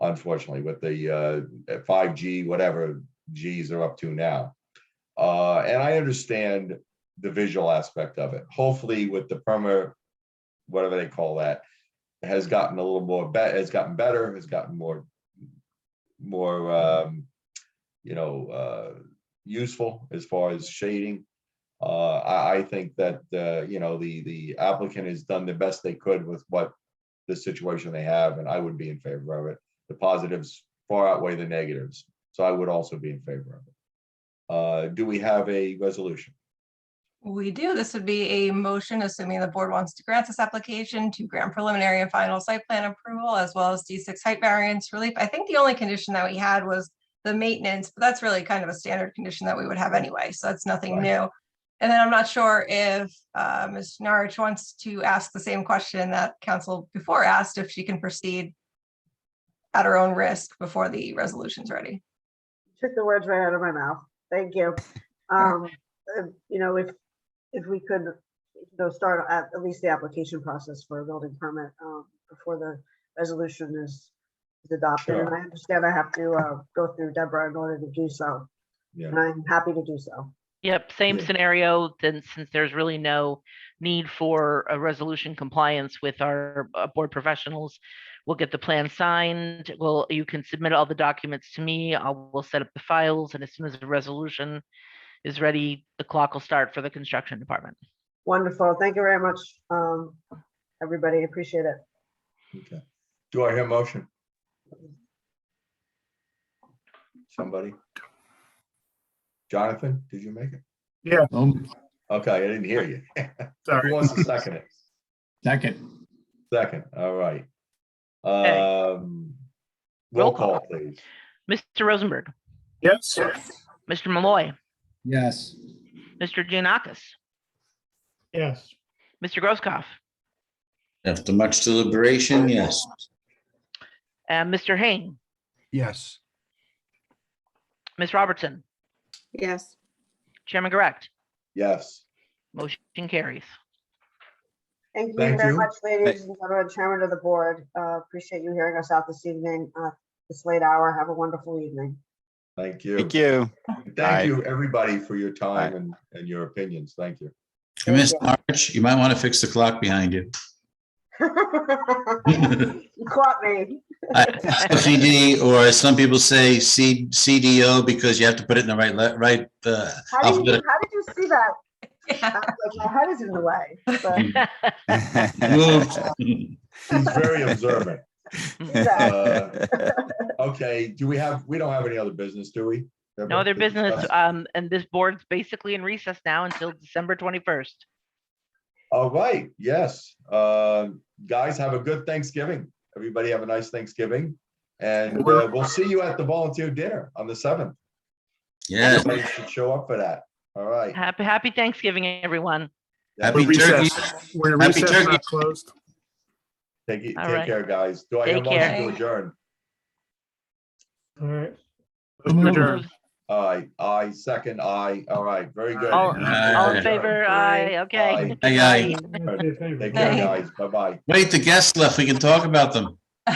unfortunately, with the uh, 5G, whatever Gs are up to now. Uh, And I understand the visual aspect of it. Hopefully with the perma, whatever they call that, has gotten a little more, bet has gotten better, has gotten more, more, um, you know, uh, useful as far as shading. Uh, I, I think that, uh, you know, the, the applicant has done the best they could with what the situation they have, and I would be in favor of it. The positives far outweigh the negatives, so I would also be in favor of it. Uh, do we have a resolution? We do. This would be a motion, assuming the board wants to grant this application to grant preliminary and final site plan approval as well as D6 height variance relief. I think the only condition that we had was the maintenance, but that's really kind of a standard condition that we would have anyway, so that's nothing Right. new. And then I'm not sure if uh, Ms. Narich wants to ask the same question that council before asked, if she can proceed at her own risk before the resolution's ready. took the words right out of my mouth. Thank you. Um, uh, you know, if, if we could, though, start at, at least the application process for a building permit, um, before the resolution is is adopted. And Sure. I understand I have to, uh, go through Deborah in order to do so, Yeah, and I'm happy to do so. Yep, same Yeah. scenario, then since there's really no need for a resolution compliance with our uh, board professionals, we'll get the plan signed, well, you can submit all the documents to me, I'll, we'll set up the files, and as soon as the resolution is ready, the clock will start for the construction department. Wonderful. Thank you very much, um, everybody. Appreciate it. okay. Do I hear a motion? Somebody? Jonathan, did you make it? Um, Okay, I didn't hear you. Who sorry, wants to second it? second, Second, all right. Okay. Um, roll Roll call. call, please. Mr. Rosenberg, Yes, Mr. Malloy, yes, Mr. Giannakis, yes, Mr. Grosskopf, After much deliberation, yes. and Mr. Hain, Yes. Ms. Robertson, yes, Chairman Correct, Yes, motion carries. Thank you Thank very you. much, ladies and gentlemen, chairman of the board. Uh, appreciate you hearing us out this evening, uh, this late hour. Have a wonderful evening. thank you. Thank you. Thank Bye. you, everybody, for your time and, and your opinions. Thank you. Thank Miss you. March, you might want to fix the clock behind you. You caught me. CD, or some people say C, CDO because you have to put it in the right, le- right, uh, How did you, alphabet. how did you see that? I was Like, my head is in the way. but Moved. He's very observant. Uh, Okay, do we have, we don't have any other business, do we? No Deborah, to other business, discuss? um, and this board's basically in recess now until December twenty-first. All right, yes. Uh, Guys, have a good Thanksgiving. Everybody have a nice Thanksgiving. And uh, we'll see you at the volunteer dinner on the 7th. Yes, Everybody should show up for that. All right. Happy, happy Thanksgiving, everyone. happy we're turkey. recessed, we're Happy recessed, turkey. not closed. Take, it- All take right. care, guys. Do I have a Take care. motion to adjourn? All right. Move. Adjourn. All right, aye, second, aye. All right, very good. All, all in Aye. favor, Aye. aye, okay. Aye. Aye, aye. Take care, guys. Bye-bye. Wait, the guests left. We can talk about them.